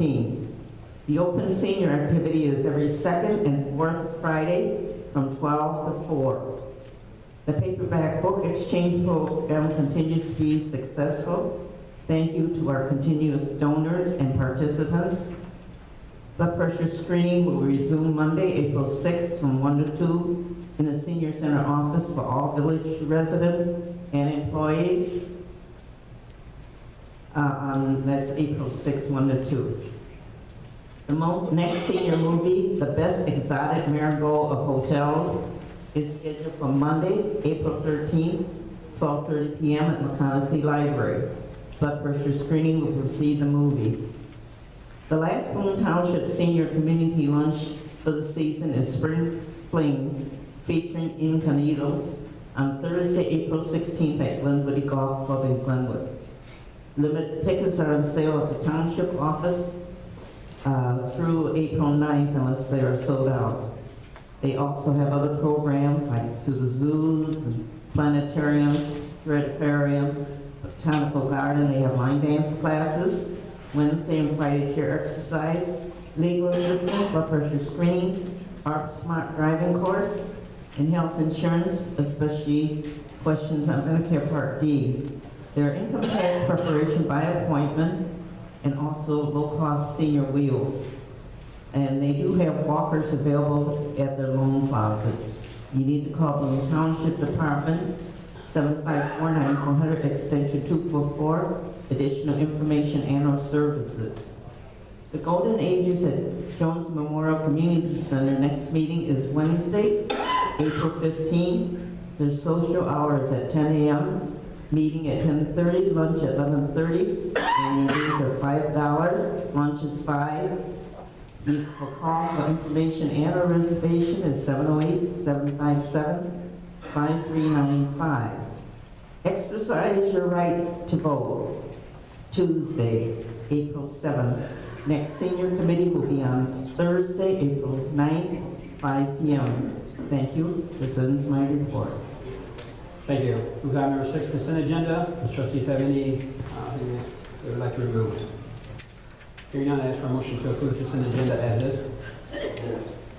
15. The open senior activity is every second and fourth Friday from 12 to 4. The paperback book exchange program continues to be successful. Thank you to our continuous donors and participants. Blood pressure screening will resume Monday, April 6th, from 1 to 2 in the Senior Center office for all village residents and employees. Uh, um, That's April 6th, 1 to 2. The mo- next senior movie, The Best Exotic Marigold of Hotels, is scheduled for Monday, April 13th, 12:30 PM at McConaughey Library. Blood pressure screening will precede the movie. The last Boone Township Senior Community Lunch for the season is Spring Fling featuring Incanitos on Thursday, April 16th at Glenwood Golf Club in Glenwood. Limited tickets are on sale at the township office uh, through April 9th unless they are sold out. They also have other programs like to the zoo, the planetarium, aquarium, botanical garden. They have line dance classes, Wednesday and Friday chair exercise, legal assistance, blood pressure screening, ARP smart driving course, and health insurance, especially questions on Medicare Part D. Their income tax preparation by appointment and also low-cost senior wheels. And they do have walkers available at their loan closet. You need to call the Township Department, 754-9400, extension 244, additional information and/or services. The Golden Ages at Jones Memorial Community Center, next meeting is Wednesday, April 15. Their social hour is at 10 a.m., meeting at 10:30, lunch at 11:30, and your dues are $5, lunch is 5 The call for information and a reservation oh is 708-757-5395. Exercise your right to vote. Tuesday, April 7th. Next senior committee will be on Thursday, April 9th, 5 p.m. Thank you. This ends my report. Thank you. Move to item number six, consent agenda. Does trustees have any uh, thing they would like to remove? Hearing none, I ask for a motion to approve consent agenda as is.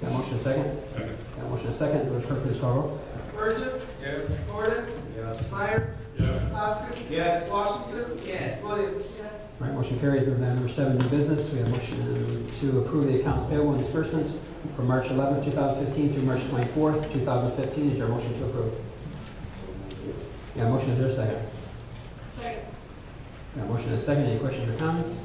Got a motion second? Second. Got a motion second. Village clerk, please call roll. Burgess. Yes. Gordon. Yes. Myers. Yes. Poskett. Yes. Washington. Yes. Williams. Yes. All right, motion carries. Move to item number seven, new business. We have a motion to approve the accounts payable and disbursements from March 11, 2015 through March 24, 2015. Is there a motion to approve? Yeah, motion is there a second? Second. Got a motion and a second. Any questions or comments?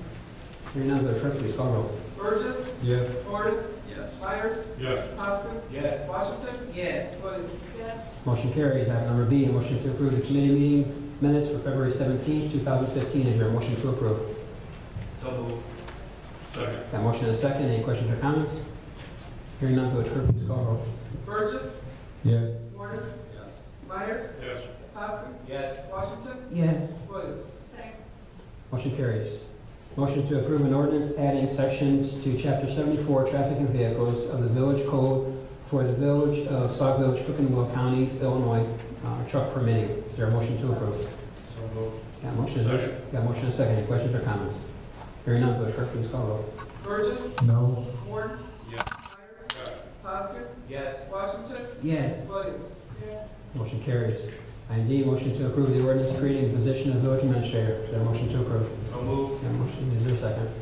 Hearing none, Village clerk, please call roll. Burgess. Yes. Gordon. Yes. Myers. Yes. Poskett. Yes. Washington. Yes. Williams. Yes. Motion carries. Item number B, a motion to approve the committee meeting minutes for February 17, 2015. Is there a motion to approve? Second. Got a motion and a second. Any questions or comments? Hearing none, Village Clerk, please call roll. Burgess. Yes. Gordon. Yes. Myers. Yes. Poskett. Yes. Washington. Yes. Williams. Second. Motion carries. Motion to approve an ordinance adding sections to Chapter 74, Traffic and Vehicles of the Village Code for the Village of Sauk Village, Cook and Will Counties, Illinois, uh, truck permitting. Is there a motion to approve? So moved. Got a motion and a- Second. got a motion and a second. Any questions or comments? Hearing none, Village Clerk, please call roll. Burgess. No. Gordon. Yes. Myers. Poskett. Yes. Washington. Yes. Williams. Yes. Motion carries. Item D, motion to approve the ordinance creating the position of village administrator. Is there a motion to approve? So moved. Got a motion, is there a second?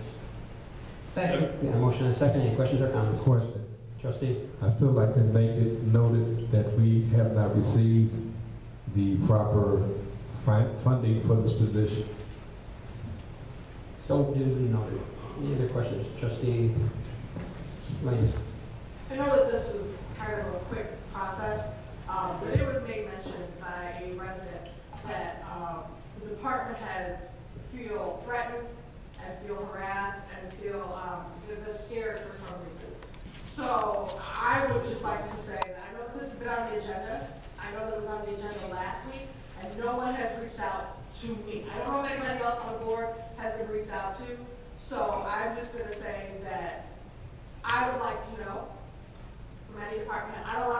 Second. Got a motion and a second, any questions or comments? Question. Trustee? I still like to make it noted that we have not received the proper fi- funding for this position. So duly noted. Any other questions? Trustee Lanes? I know that this was kind of a quick process, um, but it was made mention by a resident that um, the department heads feel threatened and feel harassed and feel, um, that they're scared for some reason. So I would just like to say that I know this has been on the agenda. I know that it was on the agenda last week, and no one has reached out to me. I don't know if anybody else on the board has been reached out to. So I'm just gonna say that I would like to know from any department, I don't want